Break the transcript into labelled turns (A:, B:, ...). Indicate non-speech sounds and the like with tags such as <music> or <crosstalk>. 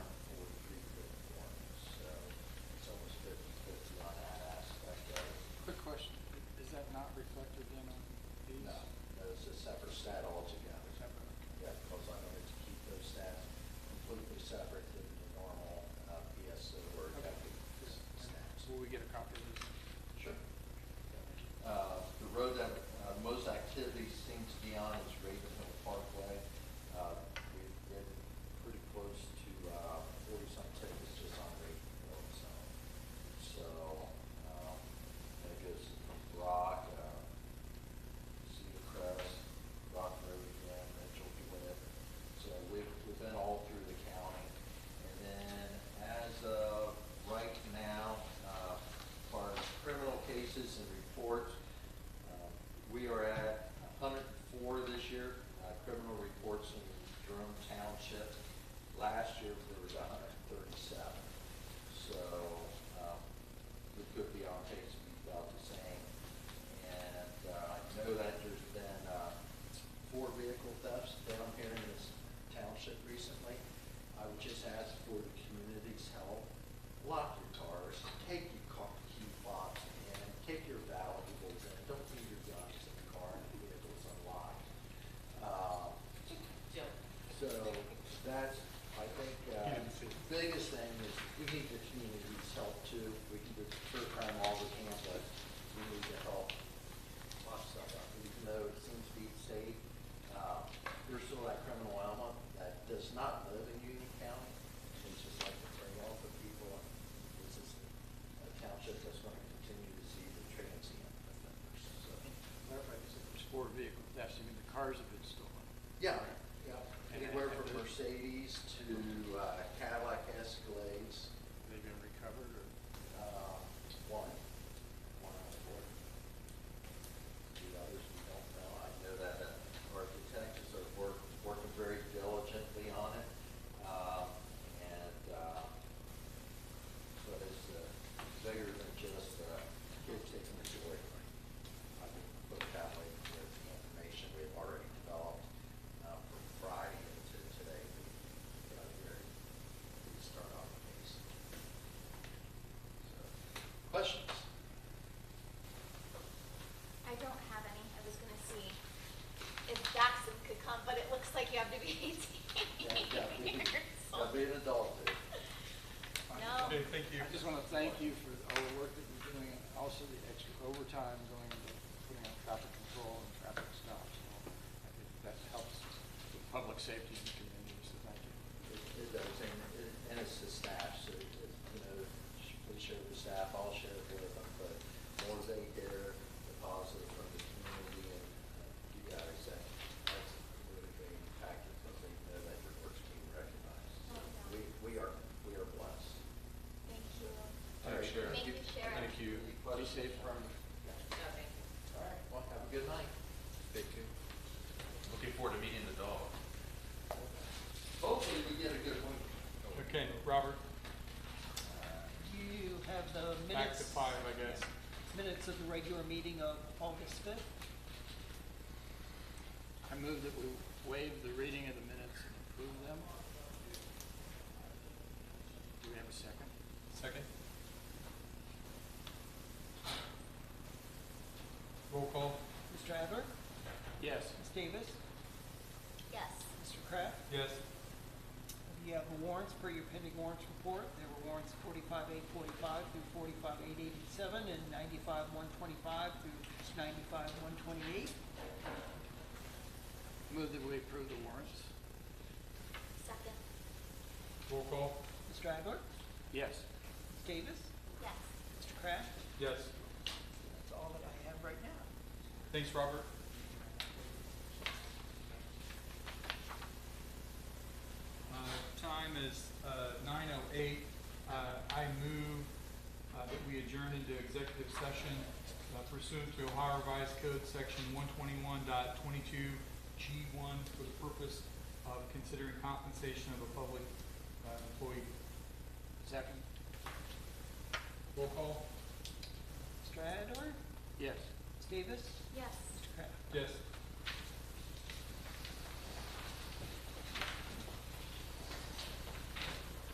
A: uh, uh,
B: get a copy of this?
A: Sure. Uh, The road that uh, most activity seems to be on is Raven Hill Parkway. Uh, We've been pretty close to uh, forty-some tickets just on Raven Hill, so. So um, that goes from Brock, uh, Cedar Crest, Rock Road again, Mitchell, Gwinnett. So we've, we've been all through the county. And then as of right now, uh, for criminal cases and reports, uh, we are at hundred and four this year, uh, criminal reports in Jerome Township. Last year, there was hundred and thirty-seven. So, um, we could be on pace to be about the same. And, uh, I know that there's been, uh, four vehicle thefts down here in this township recently. I would just ask for the community's help, lock your cars, take your car key box and take your valuables and don't leave your guns in the car and the vehicle's unlocked. Uh, so that's, I think, uh, the biggest thing is we need the community's help too. We can deter crime all we can, but we need to help lock stuff up. Even though it seems to be safe, uh, there's still that criminal element that does not live in Union County. It's just like the prey off of people. and This is a township that's going to continue to see the transient offenders, so.
B: Clarify, you said there's four vehicle thefts, you mean the cars have been stolen?
A: Yeah, yeah,
B: And-
A: anywhere
B: and
A: from
B: there's-
A: Mercedes to uh, Cadillac Escalades,
B: Have they been recovered or?
A: uh, one, one out of four. The others we don't know, I know that uh, our detectives are work, working very diligently on it. Um, And, uh, but it's uh, bigger than just uh, kids taking a joy. I can put it that way, with the information we've already developed uh, from Friday into today. We got here, we start off the case. So,
C: <laughs>
A: Questions?
C: I don't have any, I was gonna see if Jackson could come, but it looks like you have to be
A: Yeah,
C: eighteen
A: yeah, we-
C: years
A: I'll
C: old.
A: be an adult there.
C: No.
D: Okay, thank you.
B: I just want to thank you for all the work that you're doing, and also the extra overtime going into putting on traffic control and traffic stops. and all. I think that helps with public safety in the community, so thank you.
A: It it does, and it- and it's the staff, so, it- it, you know, sh- we share the staff, I'll share it with them, but more they hear the positive from the community and uh, you guys, that, that's really big impact, because they know that your work's being recognized.
C: Oh,
A: So We, we are, we are blessed.
C: Thank you.
A: All right, Sharon.
C: Thank you, Sharon.
D: Thank you.
A: Any questions?
B: Be safe, Harvey.
A: Yeah. All right, well, have a good night.
D: Thank you. Looking forward to meeting the dog.
A: Hopefully we get a good one.
D: Okay, Robert,
E: You have the
D: back to
E: minutes.
D: five, I guess.
E: Minutes of the regular meeting of August fifth.
B: I move that we waive the reading of the minutes and approve them. Do we have a second?
D: Second. Roll call?
E: Mr. Adler,
B: Yes.
E: Ms. Davis,
C: Yes,
E: Mr. Kraft.
D: Yes.
E: You have the warrants for your pending warrants report. There were warrants forty-five eight forty-five through forty-five eight eighty-seven and ninety-five one twenty-five through ninety-five one twenty-eight.
B: Move that we approve the warrants.
C: second,
D: Roll call?
E: Mr. Adler,
B: Yes.
E: Ms. Davis,
C: yes.
E: Mr. Kraft.
D: Yes.
E: That's all that I have right now.
D: Thanks, Robert. Uh, Time is nine oh eight. I move uh, that we adjourn into executive session uh, pursuant to Ohio Revised Code, Section one twenty-one G one, for the purpose of considering compensation of a public uh,